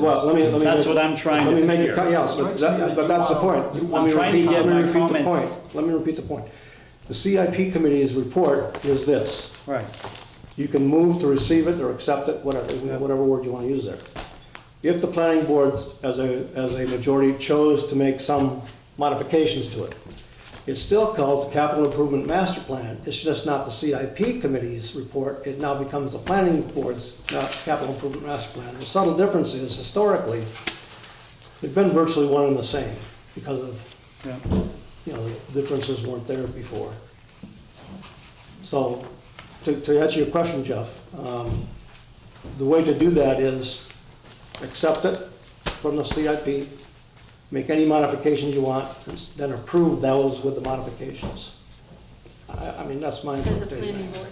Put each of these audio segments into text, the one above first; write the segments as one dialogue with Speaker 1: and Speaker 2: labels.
Speaker 1: Well, let me, let me.
Speaker 2: That's what I'm trying to
Speaker 1: Let me make
Speaker 2: figure.
Speaker 1: it, cut- yes, but that, but that's the point. Let
Speaker 2: I'm
Speaker 1: me
Speaker 2: trying to
Speaker 1: repeat- let
Speaker 2: get
Speaker 1: me
Speaker 2: my
Speaker 1: repeat the
Speaker 2: comments.
Speaker 1: point. Let me repeat the point. The CIP committee's report was this.
Speaker 2: Right.
Speaker 1: You can move to receive it or accept it, whatever, whatever word you want to use there. If the planning boards, as a, as a majority, chose to make some modifications to it, it's still called the Capital Improvement Master Plan. It's just not the CIP committee's report. It now becomes the planning board's, uh, Capital Improvement Master Plan. The subtle difference is historically, they've been virtually one and the same because of
Speaker 2: Yeah.
Speaker 1: you know, the differences weren't there before. So, to, to answer your question, Jeff, um, the way to do that is accept it from the CIP, make any modifications you want, and then approve those with the modifications. I, I mean, that's my
Speaker 3: As a planning
Speaker 1: interpretation.
Speaker 3: board.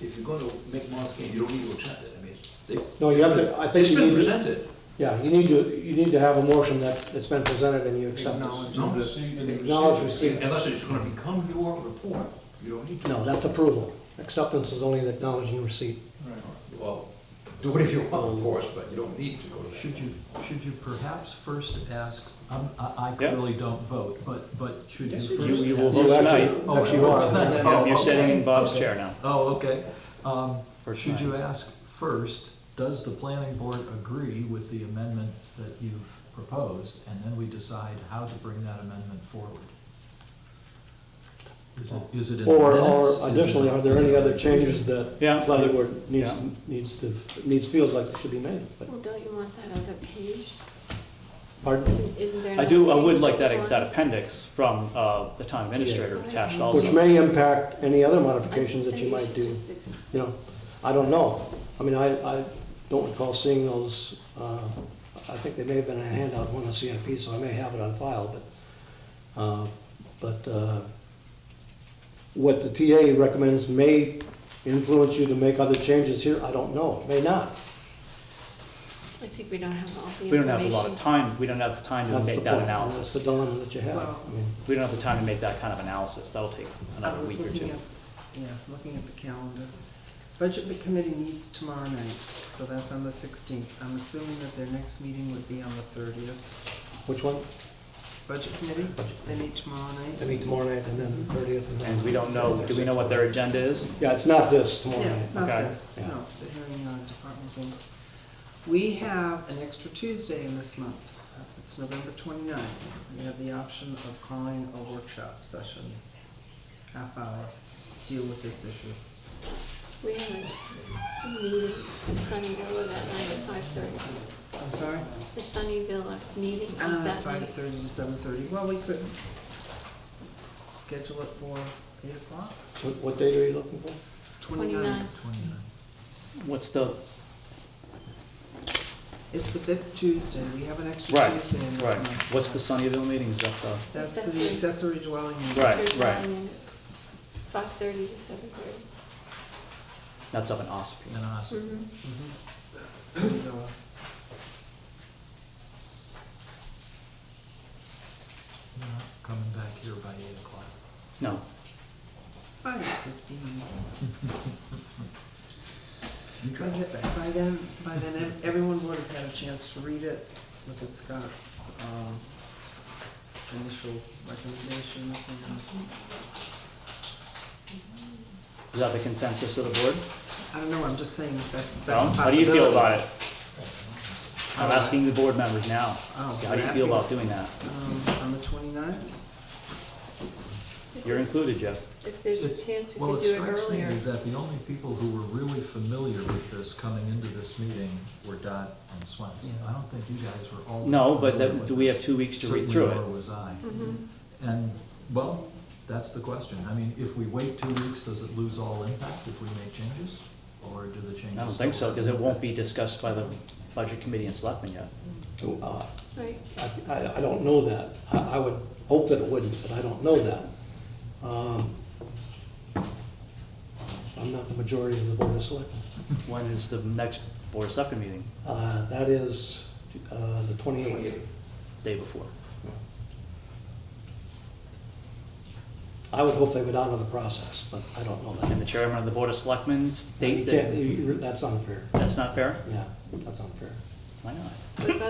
Speaker 4: If you're gonna make modifications, you don't need to accept it, I mean, they.
Speaker 1: No, you have to, I think
Speaker 4: It's
Speaker 1: you
Speaker 4: been
Speaker 1: need to,
Speaker 4: presented.
Speaker 1: yeah, you need to, you need to have a motion that it's been presented and you accept it.
Speaker 4: No.
Speaker 1: Acknowledge receipt.
Speaker 4: Unless it's gonna become your report, you don't need to.
Speaker 1: No, that's approval. Acceptance is only an acknowledging receipt.
Speaker 4: Well, do whatever you want, of course, but you don't need to go to that.
Speaker 5: Should you, should you perhaps first ask, I'm- I I
Speaker 2: Yeah.
Speaker 5: clearly don't vote, but, but should you
Speaker 4: Yes,
Speaker 5: first?
Speaker 2: You, you will
Speaker 1: You
Speaker 2: vote
Speaker 1: actually-
Speaker 2: tonight.
Speaker 5: Oh,
Speaker 1: actually
Speaker 5: you are.
Speaker 1: are.
Speaker 5: Tonight.
Speaker 2: Yeah,
Speaker 5: Oh,
Speaker 2: You're
Speaker 5: okay.
Speaker 2: sitting in Bob's
Speaker 5: Okay.
Speaker 2: chair now.
Speaker 5: Oh, okay. Um,
Speaker 2: For
Speaker 5: Should you
Speaker 2: tonight.
Speaker 5: ask first, does the planning board agree with the amendment that you've proposed? And then we decide how to bring that amendment forward. Is it, is it in the
Speaker 1: Or,
Speaker 5: minutes? Is
Speaker 1: or
Speaker 5: it-
Speaker 1: additionally, are there any other changes that
Speaker 2: Yeah.
Speaker 1: planning board needs,
Speaker 2: Yeah.
Speaker 1: needs to, needs, feels like they should be made? But-
Speaker 3: Well, Oh, don't you want that on the page?
Speaker 1: Pardon?
Speaker 3: Isn't, isn't there?
Speaker 2: I do, I
Speaker 3: another
Speaker 2: would
Speaker 3: page
Speaker 2: like that,
Speaker 3: want?
Speaker 2: that appendix from, uh, the town administrator attached also.
Speaker 1: Which may impact any other
Speaker 3: I
Speaker 1: modifications that
Speaker 3: think
Speaker 1: you might
Speaker 3: should
Speaker 1: do,
Speaker 3: just ex-
Speaker 1: you know, I don't know. I mean, I, I don't recall seeing those, uh, I think they may have been in a handout, one on CIP, so I may have it on file, but, uh, but, uh, what the TA recommends may influence you to make other changes here, I don't know, may not.
Speaker 3: I think we don't have all the information.
Speaker 2: We don't have a lot of time, we don't have the time to
Speaker 1: That's the
Speaker 2: make
Speaker 1: point.
Speaker 2: that
Speaker 1: That's the
Speaker 2: analysis.
Speaker 1: dilemma that you have. I mean,
Speaker 2: We don't have the time to make that kind of analysis, that'll take
Speaker 6: I
Speaker 2: another
Speaker 6: was
Speaker 2: week or
Speaker 6: looking
Speaker 2: two.
Speaker 6: at, yeah, looking at the calendar. Budget committee meets tomorrow night, so that's on the sixteenth. I'm assuming that their next meeting would be on the thirtieth.
Speaker 1: Which one?
Speaker 6: Budget committee, they meet tomorrow
Speaker 1: They
Speaker 6: night.
Speaker 1: meet tomorrow night and then the 30th. then-
Speaker 2: And we don't know, do we know what their agenda is?
Speaker 1: Yeah, it's not this tomorrow
Speaker 6: Yeah,
Speaker 1: night.
Speaker 6: it's not
Speaker 2: okay,
Speaker 6: this,
Speaker 1: yeah.
Speaker 6: no, the hearing on department thing. We have an extra Tuesday in this month. Uh, It's November 29th. We have the option of calling a workshop session, half hour, deal with this issue.
Speaker 3: We have a meeting in Sunnyville that night at five thirty.
Speaker 6: I'm sorry?
Speaker 3: The Sunnyville meeting is
Speaker 5: Ah,
Speaker 6: Uh,
Speaker 3: that
Speaker 6: five
Speaker 3: night.
Speaker 6: thirty to seven thirty, well, we could schedule it for eight o'clock,
Speaker 1: What- What date are you looking for?
Speaker 6: twenty-nine.
Speaker 3: 29.
Speaker 5: 29.
Speaker 2: What's the,
Speaker 6: It's the fifth Tuesday, we have an extra
Speaker 2: Right,
Speaker 6: Tuesday in this
Speaker 2: right,
Speaker 6: month.
Speaker 2: what's the Sunnyville meeting, is that uh, the?
Speaker 6: That's to the accessory dwelling unit.
Speaker 2: Right, right.
Speaker 3: Five thirty to seven thirty.
Speaker 2: That's up in Ospey.
Speaker 5: And ask,
Speaker 2: Mm-hmm.
Speaker 6: Mhm. No,
Speaker 5: you're not coming back here by eight o'clock.
Speaker 2: No,
Speaker 6: Five fifteen.
Speaker 4: You
Speaker 6: By
Speaker 4: try to
Speaker 6: then, by then, by then, ev- everyone would have had a chance to read it, look at Scott's, um, initial recommendations and,
Speaker 2: is that the consensus of the board?
Speaker 6: I don't know, I'm just saying that that's, that's a
Speaker 2: No?
Speaker 6: possibility.
Speaker 2: How do you feel about it? I'm asking the board members now,
Speaker 6: Oh,
Speaker 2: how do you feel about doing that?
Speaker 6: Um, on the twenty-ninth?
Speaker 2: You're included, Jeff.
Speaker 3: If there's a
Speaker 5: It's-
Speaker 3: chance, we
Speaker 5: Well,
Speaker 3: could
Speaker 5: it
Speaker 3: do it
Speaker 5: strikes me
Speaker 3: earlier.
Speaker 5: That the only people who were really familiar with this coming into this meeting were Dot and Swenson. I don't think you guys were all. that
Speaker 2: No, but
Speaker 5: familiar
Speaker 2: that,
Speaker 5: with
Speaker 2: do we have two weeks to read
Speaker 5: Certainly
Speaker 2: through
Speaker 5: nor
Speaker 2: it?
Speaker 5: was I.
Speaker 3: Mhm.
Speaker 5: And, well, that's the question. I mean, if we wait two weeks, does it lose all impact if we make changes? Or do the changes?
Speaker 2: I don't think so,
Speaker 5: still-
Speaker 2: because it won't be discussed by the budget committee and selectmen yet.
Speaker 1: Oh, uh,
Speaker 3: Right,
Speaker 1: I- I, I don't know that. I, I would hope that it wouldn't, but I don't know that. Um, I'm not the majority of the board of selectmen.
Speaker 2: When is the next board of selectmen meeting?
Speaker 1: Uh, That is uh, the 28th.
Speaker 2: Day before.
Speaker 1: I would hope they would honor the process, but I don't know
Speaker 2: And
Speaker 1: that.
Speaker 2: the chairman of the board of selectmen
Speaker 1: You
Speaker 2: state
Speaker 1: can't-
Speaker 2: that,
Speaker 1: you- That's unfair.
Speaker 2: that's not fair?
Speaker 1: Yeah, that's unfair.
Speaker 2: Why not?
Speaker 3: but that's